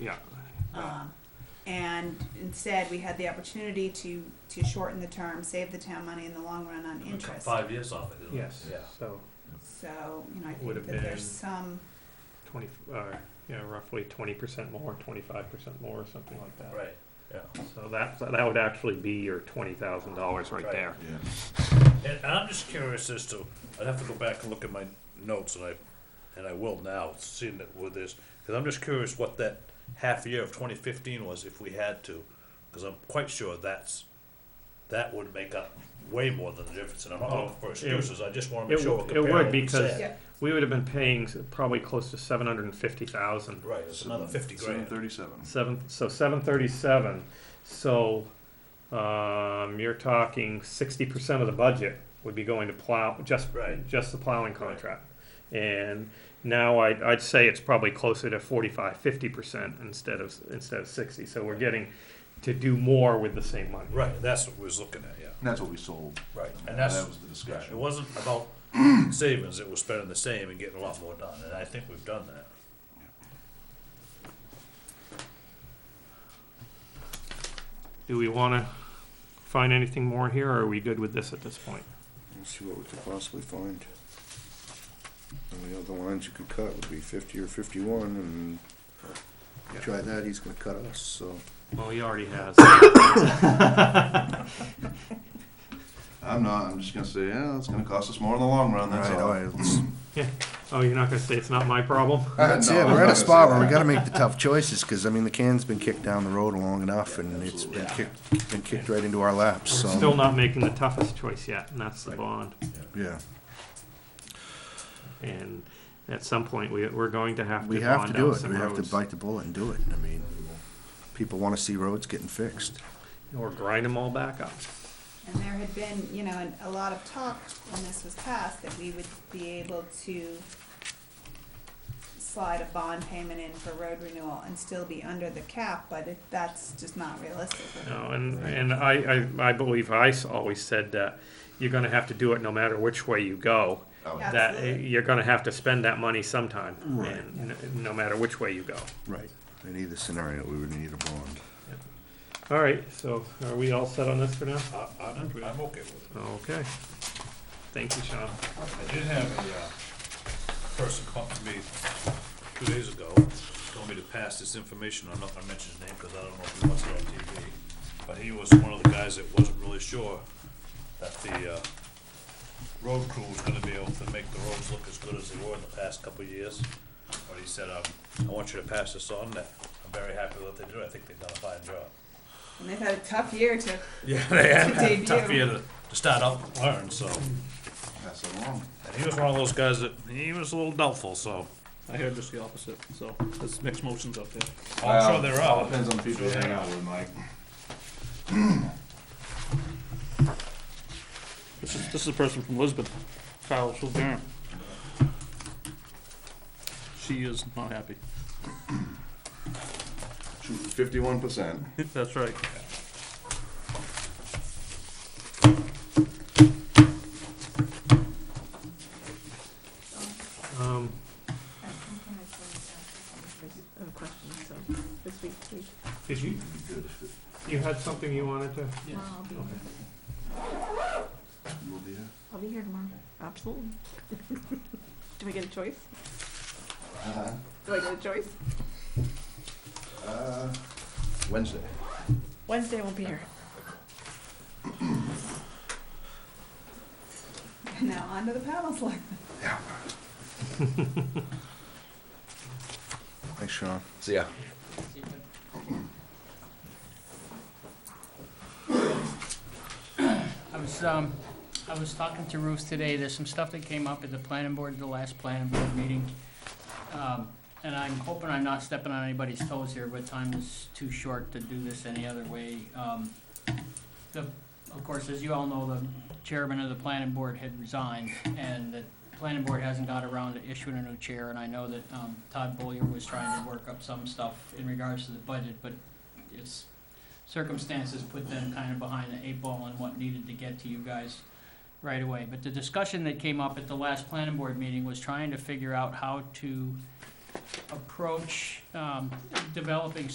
Yeah. Um, and instead, we had the opportunity to, to shorten the term, save the town money in the long run on Took interest. Five years off it. didn't it? Yes, Yeah. so So, you know, I Would think have that there's been- some, twenty, uh, you know, roughly twenty percent more, twenty-five percent more, or something like that. Right, Yeah. So that, that would actually be your twenty thousand dollars right Right. there. Yeah. and, and I'm just curious as to, I'd have to go back and look at my notes, and I, and I will now, seeing that with this, because I'm just curious what that half year of twenty fifteen was, if we had to, because I'm quite sure that's, that would make up way more than the difference, and I'm not Oh, looking for it- excuses, I just want to it make sure we're would- it comparing would what we because- said. yeah, We would have been paying s- probably close to seven hundred and fifty thousand. Right, it's another fifty Seven grand. thirty-seven. Seven, so seven thirty-seven, so, um, you're talking sixty percent of the budget would be going to plow, just, Right. just the plowing contract. And now I'd, I'd say it's probably closer to forty-five, fifty percent instead of, instead of sixty, so we're getting to do more with the same money. Right, that's what we was looking at, yeah. That's what we sold. Right, and That that's, was the yeah, it discussion. wasn't about savings, it was spending the same and getting a lot more done, and I think we've done that. Do we wanna find anything more here, or are we good with this at this point? Let's see what we could possibly find. And the other lines you could cut would be fifty or fifty-one, Yeah. and try that, he's gonna cut us, so. Well, he already has. I'm not, I'm just gonna say, yeah, it's gonna cost us more in the long run, that's all. Oh, you're not gonna say it's not my problem? That's Uh, No, it, I'm we're not at gonna a spot say where we that. gotta make the tough choices, cause I mean, the can's been kicked down the road long enough, and it's been absolutely. kicked, been kicked right into our laps, We're still so, not making the toughest choice yet, and that's the bond. yeah. And at some point, we, we're going to have to We have to bond do out it, some we have to roads. bite the bullet and do it, I mean, people wanna see roads getting fixed. Or grind them all back up. and there had been, you know, an- a lot of talk when this was passed that we would be able to slide a bond payment in for road renewal and still be under the cap, but it, that's just not realistic. No, and, and I, I, I believe I s- always said that you're gonna have to do it no matter which way you go. Oh, Yeah. That, uh, Absolutely. you're gonna have to spend that money sometime, Right. and n- no matter which way you go. Right. In either scenario, we would need a bond. All right, so are we all set on this for now? I, I'm, I'm okay with Okay. Thank you, Sean. it. I did have a, uh, person come up to me two days ago, told me to pass this information, I'm not gonna mention his name, cause I don't know if he wants it on TV. But he was one of the guys that wasn't really sure that the, uh, road crew was gonna be able to make the roads look as good as they were in the past couple of years. But he said, um, I want you to pass this on, that I'm very happy with what they do, I think they've done a fine job. And they've had a tough year to, Yeah, they had To a tough debut. year to, to start out and learn, so. Pass it along. And he was one of those guys that, he was a little doubtful, so. I heard just the opposite, so there's mixed motions up there. I'm sure there are. Depends on the people you Sure hang there out are. with, Mike. This is, this is a person from Lisbon, Kyle Schulbaran. She is not happy. Shoot, fifty-one percent. That's right. Um, Of questions, so this week, we, did you, you had something you wanted to? tomorrow I'll be, Okay. You will be here? I'll be here tomorrow, absolutely. Do I get a choice? Uh-huh. Do I get a choice? Uh, Wednesday. Wednesday I won't be here. and now onto the panel select. Thanks, Sean. See ya. I was, um, I was talking to Ruth today, there's some stuff that came up at the planning board, the last planning board meeting. Um, and I'm hoping I'm not stepping on anybody's toes here, but time is too short to do this any other way. Um, the, of course, as you all know, the chairman of the planning board had resigned, and the planning board hasn't got around to issuing a new chair, and I know that, um, Todd Bowyer was trying to work up some stuff in regards to the budget, but it's circumstances put them kind of behind the eight ball on what needed to get to you guys right away. But the discussion that came up at the last planning board meeting was trying to figure out how to approach um, developing